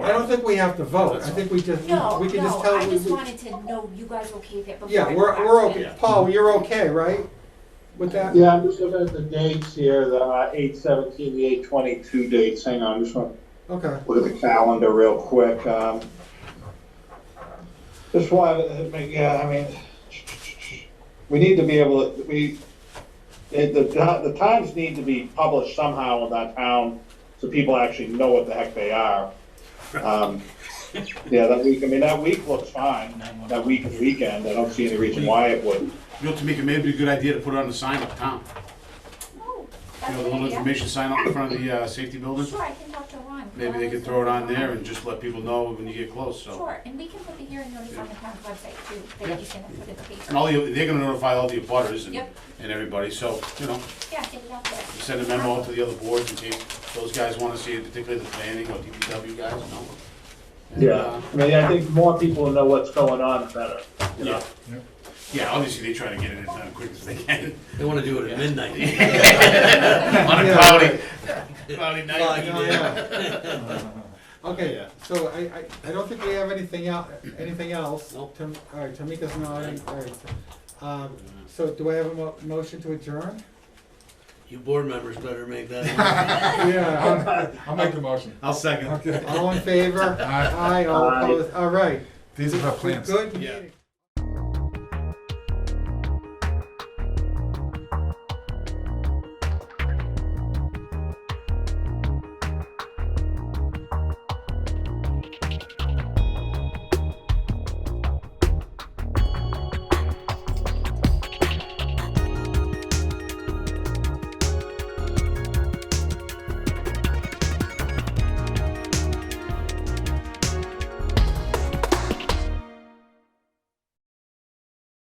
I don't think we have to vote, I think we just, No, we can just no, tell. I we- just we- wanted to know you guys okay with it before. Yeah, I we're, go we're back to okay, it. Paul, you're okay, right? With that? Yeah, I'm just looking at the dates here, the uh, eight seventeen, the eight twenty-two dates, hang on, just want Okay, to look at the calendar real quick. um, Just wanted, to make- yeah, I mean, we need to be able to, we, it- the, the times need to be published somehow in that town, so people actually know what the heck they are. Um, Yeah, that week, I mean, that week looks fine, that week is weekend, I don't see any reason why it wouldn't. You know, Tamika, maybe it'd be a good idea to put it on the sign up town. Oh, You that's know, the little an idea. information sign up in front of the uh, safety building. Sure, I can talk to Ron. Maybe they could throw it on there and just let people know when you get close, so. Sure, and we can put the hearing notice on the town website too, Yeah. that you can put in the And paper. all the, they're gonna notify all the abutters and, Yep. and everybody, so, you know, Yeah, get it out there. send a memo to the other boards in case those guys wanna see it, particularly the planning or DPW guys, you know. And, Yeah, uh, I mean, I think more people know what's going on the better. you know? Yeah. Yeah, obviously they try to get it as done as quick as they can. They wanna do it at midnight. On a Yeah. cloudy, cloudy night. Foggy No, day. yeah. Okay, Yeah. so I, I, I don't think we have anything el, anything else. Nope. Tam- All right, Tamika's not, in. all right. Um, so do I have a mo- motion to adjourn? You board members better make that. Yeah, I'll make the motion. I'll second. Okay. all in favor? Aye, all Aye. opposed, all right. These are our We're plans. Good Yeah. meeting.